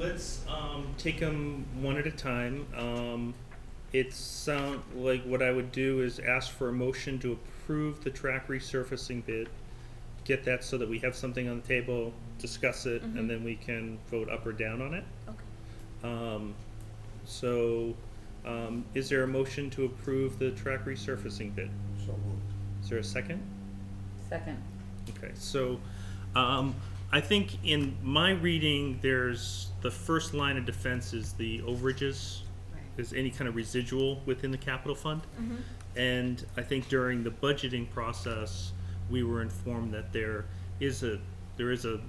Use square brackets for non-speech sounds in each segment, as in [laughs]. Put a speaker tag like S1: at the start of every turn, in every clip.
S1: Let's um, take them one at a time. Um, it sound like what I would do is ask for a motion to approve the track resurfacing bid. Get that so that we have something on the table, discuss it,
S2: Mhm.
S1: and then we can vote up or down on it.
S2: Okay.
S1: Um, so, um, is there a motion to approve the track resurfacing bid?
S3: So moved.
S1: Is there a second?
S2: Second.
S1: Okay, so um, I think in my reading, there's the first line of defense is the overages, is any kind of residual within the capital fund. And I think during the budgeting process, we were informed that there is a there is a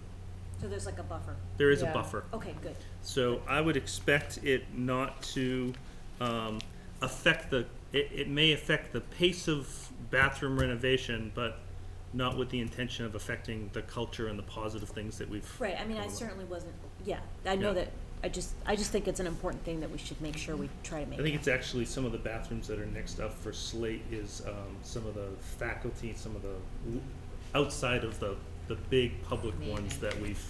S4: So there's like a buffer.
S1: there is a
S2: Yeah.
S1: buffer.
S4: Okay, good.
S1: So I would expect it not to um, affect the, it, it may affect the pace of bathroom renovation, but not with the intention of affecting the culture and the positive things that we've.
S4: Right, I mean, I
S1: Cool.
S4: certainly wasn't, yeah, I know
S1: Yeah.
S4: that, I just, I just think it's an important thing that we should make sure we try to
S1: I
S4: make.
S1: think
S4: it.
S1: it's actually some of the bathrooms that are next up for Slate is um, some of the faculty, some of the, l- outside of the, the big public ones that we've,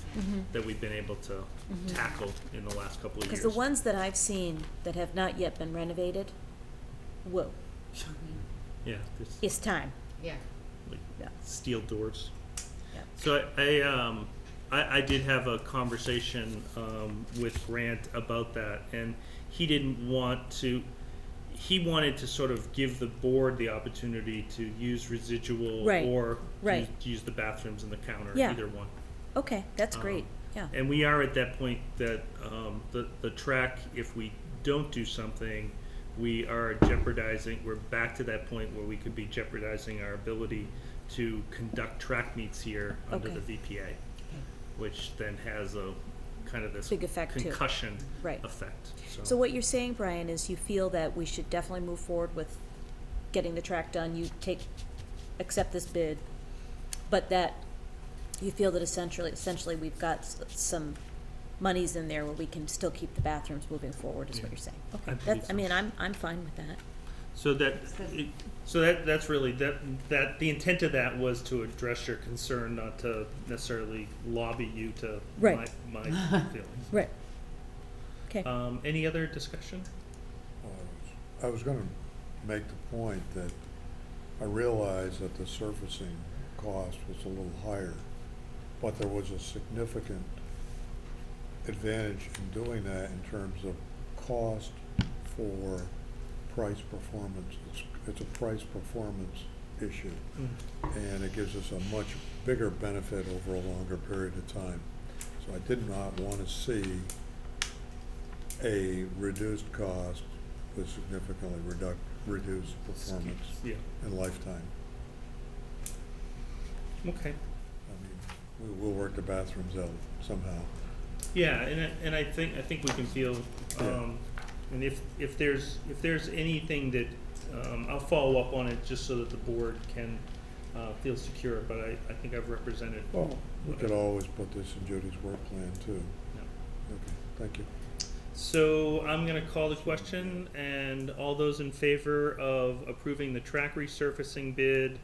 S1: that we've been able to tackle in the last couple of years.
S4: Mm-hmm. Because Mm-hmm. the ones that I've seen that have not yet been renovated, whoa,
S1: Yeah, there's
S4: it's time.
S2: Yeah.
S1: like
S4: Yeah.
S1: steel doors.
S4: Yeah.
S1: So I, I, um, I, I did have a conversation, um, with Grant about that, and he didn't want to, he wanted to sort of give the board the opportunity to use residual
S4: Right,
S1: or
S4: right.
S1: use- use the bathrooms and the counter,
S4: Yeah. Oh.
S1: either one.
S4: Okay, that's
S1: Um,
S4: great, yeah.
S1: And we are at that point that, um, the, the track, if we don't do something, we are jeopardizing, we're back to that point where we could be jeopardizing our ability to conduct track meets here under the
S4: Okay.
S1: VPA, which then has a, kind of this
S4: Big effect too.
S1: concussion
S4: Right.
S1: effect,
S4: So what you're saying, Brian, is you feel that we should definitely move forward with getting the track done, you take, accept this bid, but that you feel that essentially, essentially we've got s- some monies in there where we can still keep the bathrooms moving forward, is what
S1: Yeah.
S4: you're saying.
S1: I
S4: Okay,
S1: believe
S4: that's, I
S1: so.
S4: mean, I'm, I'm fine with that.
S1: So that, it- so that, that's really, that, that, the intent of that was to address your concern, not to necessarily lobby you to my,
S4: Right.
S1: my
S4: [laughs]
S1: feelings.
S4: Right. Okay,
S1: Um, any other discussion?
S3: uh, I was gonna make the point that I realized that the surfacing cost was a little higher, but there was a significant advantage in doing that in terms of cost for price performance. It's, it's a price performance issue, and it gives us a much bigger benefit over a longer period of time. So I did not wanna see a reduced cost with significantly reduc- reduced performance
S1: Yeah,
S3: and lifetime.
S1: okay.
S3: I mean, we will work the bathrooms out somehow.
S1: Yeah, and I, and I think, I think we can feel, um, and if, if there's, if there's anything that, um, I'll follow up on it just so that the board can, uh, feel secure, but I, I think I've represented.
S3: Well, we could always put this in Judy's work plan too.
S1: Yeah.
S3: Okay, thank you.
S1: So I'm gonna call the question, and all those in favor of approving the track resurfacing bid,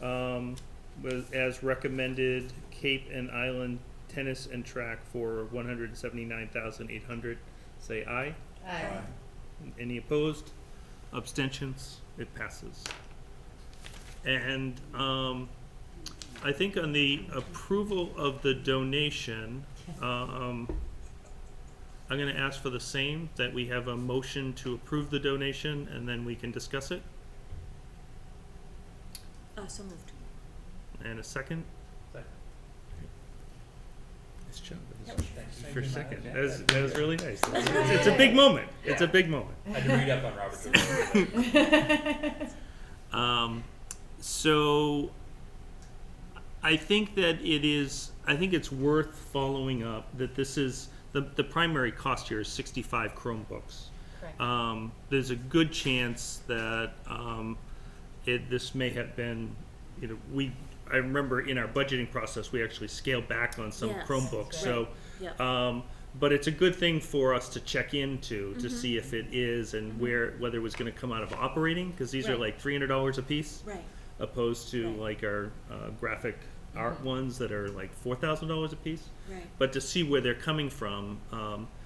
S1: um, was, as recommended, Cape and Island Tennis and Track for one hundred and seventy-nine thousand eight hundred, say aye.
S3: Aye.
S1: Any opposed? Abstentions? It passes. And, um, I think on the approval of the donation, um, I'm gonna ask for the same, that we have a motion to approve the donation and then we can discuss it.
S4: uh, so moved.
S1: And a second?
S5: Second.
S1: Nice job.
S5: That was- thank you.
S1: First second. That was,
S5: Yeah,
S1: that was really
S5: [laughs]
S1: nice. It's, it's a big moment. It's a big moment.
S5: I had to read up on Robert De Niro.
S1: Um, so I think that it is, I think it's worth following up that this is, the, the primary cost here is 65 Chromebooks. Um, there's a good chance that um, it, this may have been, you know, we, I remember in our budgeting process, we actually scaled back on some
S4: Yes,
S1: Chromebooks. So,
S4: Yeah.
S1: um, but it's a good thing for us to check into
S4: Mm-hmm.
S1: to see if it is and where whether it was going to come out of operating because these are
S4: Right.
S1: like three hundred dollars a piece
S4: Right, Mm-hmm.
S1: opposed to
S4: Right.
S1: like our uh, graphic art ones that are like four thousand dollars a piece.
S2: Right.
S1: But to see where they're coming from, um,